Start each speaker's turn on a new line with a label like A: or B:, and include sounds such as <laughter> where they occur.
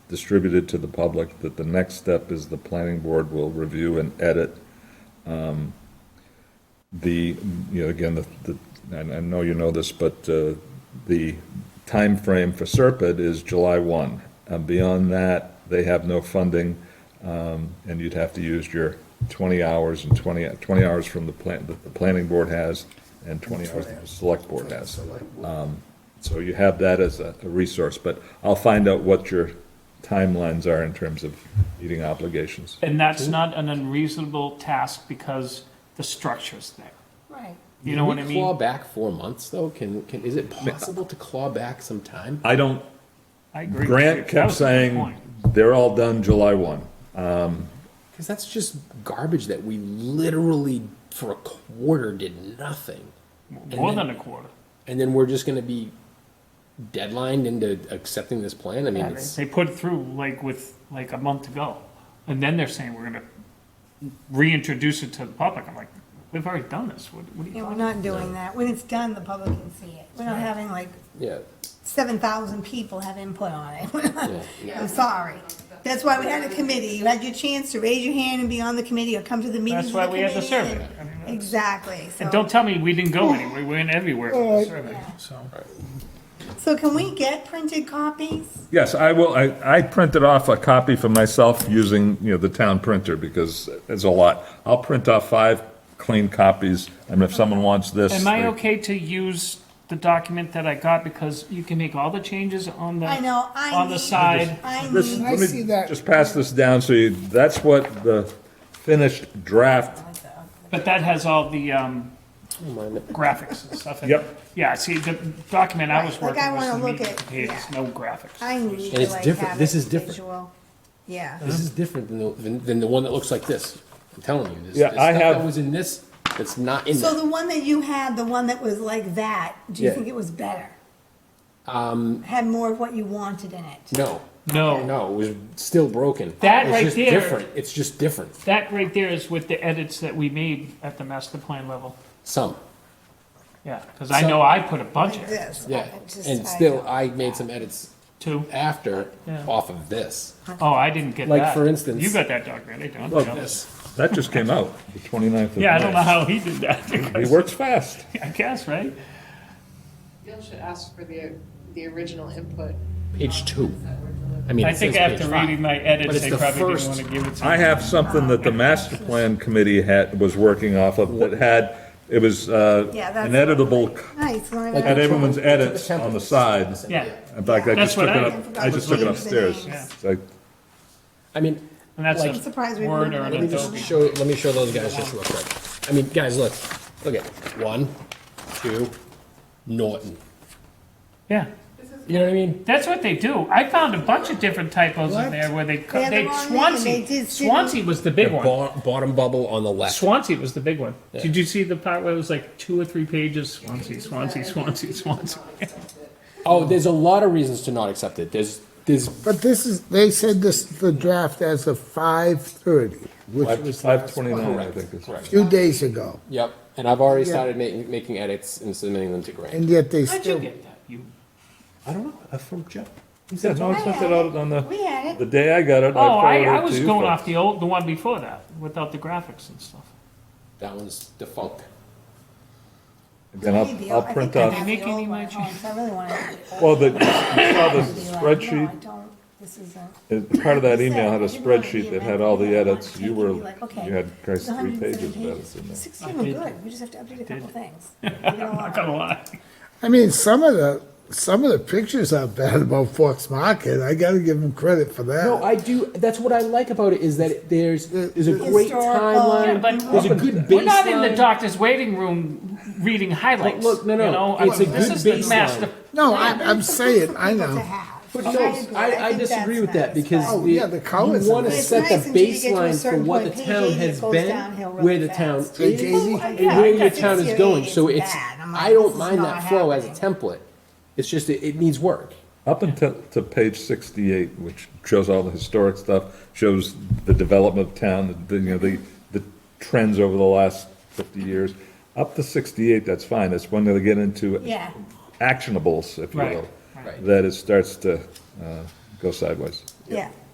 A: distributed to the public, that the next step is the planning board will review and edit um, the, you know, again, the, the- and I know you know this, but uh, the time frame for Serpent is July 1. And beyond that, they have no funding, um, and you'd have to use your 20 hours and 20, 20 hours from the plan, that the planning board has, and 20 hours that the select board has. So you have that as a, a resource, but I'll find out what your timelines are in terms of meeting obligations.
B: And that's not an unreasonable task because the structure's there.
C: Right.
B: You know
D: Can
B: what I
D: we Claw
B: mean?
D: back four months though? Can, can, is it possible to claw back some time?
A: I don't,
B: I agree. with you.
A: Grant
B: That
A: kept
B: was a good
A: saying,
B: point.
A: they're all done July one.
D: Cause that's just garbage that we literally for a quarter did nothing.
B: More than a quarter.
D: And then we're just gonna be deadlined into accepting this plan? I mean,
C: Yeah,
D: it's,
B: They put it through like with, like a month ago. And then they're saying we're gonna reintroduce it to the public. I'm like, we've already done this. What, what are you
C: Yeah, we're
B: talking
C: not doing that. When it's done, the public can see it. We're not having like
D: yeah,
C: seven thousand people have input on it. <laughs>
D: yeah.
C: I'm sorry. That's why we had a committee. You had your chance to raise your hand and be on the committee or come to the meeting.
B: That's
C: of
B: why we had the
C: committee.
B: survey. I mean, that's-
C: Exactly, so.
B: And don't tell me we didn't go anywhere. We went everywhere for the survey, so.
C: So can we get printed copies?
A: Yes, I will, I, I printed off a copy for myself using, you know, the town printer, because it's a lot. I'll print off five clean copies, and if someone wants this.
B: Am I
A: they-
B: okay to use the document that I got because you can make all the changes on the
C: I know, I
B: on the
C: need-
B: side?
C: I
A: This,
C: need,
A: let
E: I see
A: me
E: that.
A: just pass this down, so you, that's what the finished draft,
B: But that has all the um,
D: I don't mind it.
B: graphics and stuff. in it.
A: Yep.
B: Yeah, see, the document I was
C: Right, like,
B: working
C: I
B: was the
C: wanna look
B: meat and
C: at-
B: potatoes,
C: yeah.
B: no graphics.
C: I need
D: And
C: to
D: it's
C: like
D: different.
C: have
D: This
C: it
D: is different.
C: visual. Yeah.
D: This is different than the, than, than the one that looks like this. I'm telling you, this,
A: Yeah,
D: this
A: I
D: stuff
A: have-
D: that was in this that's not in
C: So
D: there.
C: the one that you had, the one that was like that, do you
D: Yeah.
C: think it was better? Um. Had more of what you wanted in it?
D: No,
B: No,
D: no, it was still broken.
B: That
D: It's
B: right
D: just
B: there-
D: Different. It's just different.
B: that right there is with the edits that we made at the master plan level.
D: Some.
B: Yeah, because I
D: So-
B: know I put a bunch
C: Like
B: of it
C: this?
D: Yeah,
C: I just-
D: and
C: I
D: still,
C: don't-
D: I made some edits
B: too.
D: after,
B: Yeah.
D: off of this.
B: Oh, I didn't get that.
D: Like, for instance-
B: You got that document, I don't.
A: Look.
B: you know.
D: This.
A: that just came out, the 29th of May.
B: Yeah, I don't know how he did
A: He
B: that, <laughs>
A: works fast.
B: I guess, right?
F: Bill should ask for the, the original input.
D: Page two. I mean,
B: I
D: it
B: think
D: says
B: after
D: page five.
B: reading my
D: But
B: edits,
D: it's
B: they
D: the
B: probably didn't
D: first-
B: want to give it to me.
A: I have something that the master plan committee had, was working off of, that had, it was, uh,
C: Yeah, that's-
A: an editable,
C: Nice. one of
D: Like
A: had
C: those.
A: everyone's edits on the side.
B: Yeah,
A: In fact, I just
B: That's what
A: took it
B: I-
A: up, I just took it upstairs.
C: Yeah.
A: It's like,
D: I mean,
B: and that's
D: Like-
C: I'm surprised
B: a
C: we
B: Word or an
C: weren't-
D: let me just
B: Adobe.
D: show, let me show those guys just real quick. I mean, guys, look, look at, one, two, Norton.
B: Yeah,
D: You know what I mean?
B: that's what they do. I found a bunch of different typos in
D: What?
B: there where they, cut-
C: They had the
B: they,
C: wrong name, they
B: Swansea,
C: did-
B: Swansea was the
D: The
B: big one.
D: bo- bottom bubble on the left.
B: Swansea was the big one. Did you see the part where it was like two or three pages, Swansea, Swansea, Swansea, Swansea?
D: Oh, there's a lot of reasons to not accept it. There's, there's,
E: But this is, they said this, the draft as of five thirty, which
A: five,
E: was
A: five
E: last,
A: twenty-nine, I think. is-
E: a few days ago,
D: yep, and I've already
E: Yeah.
D: started making, making edits and submitting them to Grant.
E: and yet they
B: How'd you
E: still.
B: get that? You,
D: I don't know,
B: uh,
D: that's from Jeff.
A: Yeah, no, I sent it out on the,
C: We had it.
A: the day I got it.
B: oh, I,
A: forwarded
B: I
A: it
B: was
A: to you
B: going
A: folks.
B: off the old, the one before that, without the graphics and stuff.
D: That one's defunct.
A: Again, I'll, I'll print
C: I think I
A: off,
C: have
B: Make
C: the
B: any
C: old one
B: more
C: at home, so I really want to.
D: <laughs>
A: well,
C: <laughs>
A: the, you saw the
C: be like, No, I
A: spreadsheet,
C: don't, this isn't.
A: uh, part of that
C: You
A: email
C: said
A: had a
C: you wanted to be
A: spreadsheet that
C: a
A: had
C: rep,
A: all
C: you
A: the
C: wanted
A: edits.
C: to
A: You
C: take it,
A: were,
C: be like, okay,
A: you had,
C: it's
A: Christ, three
C: 107
A: pages of edits
C: pages.
A: in there.
C: Sixteen were good, we just have to
D: <laughs>
C: update a couple things. We're gonna
B: Not
C: lock
B: gonna lie.
E: I mean, some of the, some of the pictures are bad about Fox Market, I gotta give them credit for that.
D: No, I do. That's what I like about it is that there's there's a great
C: Historical.
B: Yeah,
D: timeline.
B: but-
D: there's a good baseline.
B: We're not in the doctor's waiting room reading highlights.
D: Look, no, no,
B: you know? I
D: it's a
B: mean, this
D: good
B: is the
D: baseline.
B: master-
E: No, I, I'm saying, I
C: people to
E: know,
C: have.
D: But
C: I
D: no,
C: agree.
D: I, I
C: think
D: disagree
C: that's
D: with that
C: nice,
D: because
C: but-
E: Oh,
D: the,
E: yeah, the colors
D: you want
E: are
D: to
E: nice.
D: set
C: It's nice
D: the
C: until you get to a
D: baseline for
C: certain
D: what the
C: point. Page
D: town
C: eighty, it
D: has
C: goes
D: been,
C: downhill really
D: where the
C: fast.
D: town
C: Page
D: is,
E: eighty?
D: and
C: Yeah,
D: where
C: I
D: your
C: got
D: town is
C: 68,
D: going. So
C: it's
D: it's
C: bad. I'm like,
D: I
C: this
D: don't
C: is
D: mind
C: not
D: that flow as a
C: happening.
D: template. It's just it, it needs work.
A: Up until, to page sixty-eight, which shows all the historic stuff, shows the development of town, the, you know, the, the trends over the last fifty years. Up to sixty-eight, that's fine, that's when they get into
C: Yeah.
A: actionables, if you
B: Right,
A: will.
D: right.
A: That it starts to, uh,
G: go sideways.
C: Oh,
A: yeah.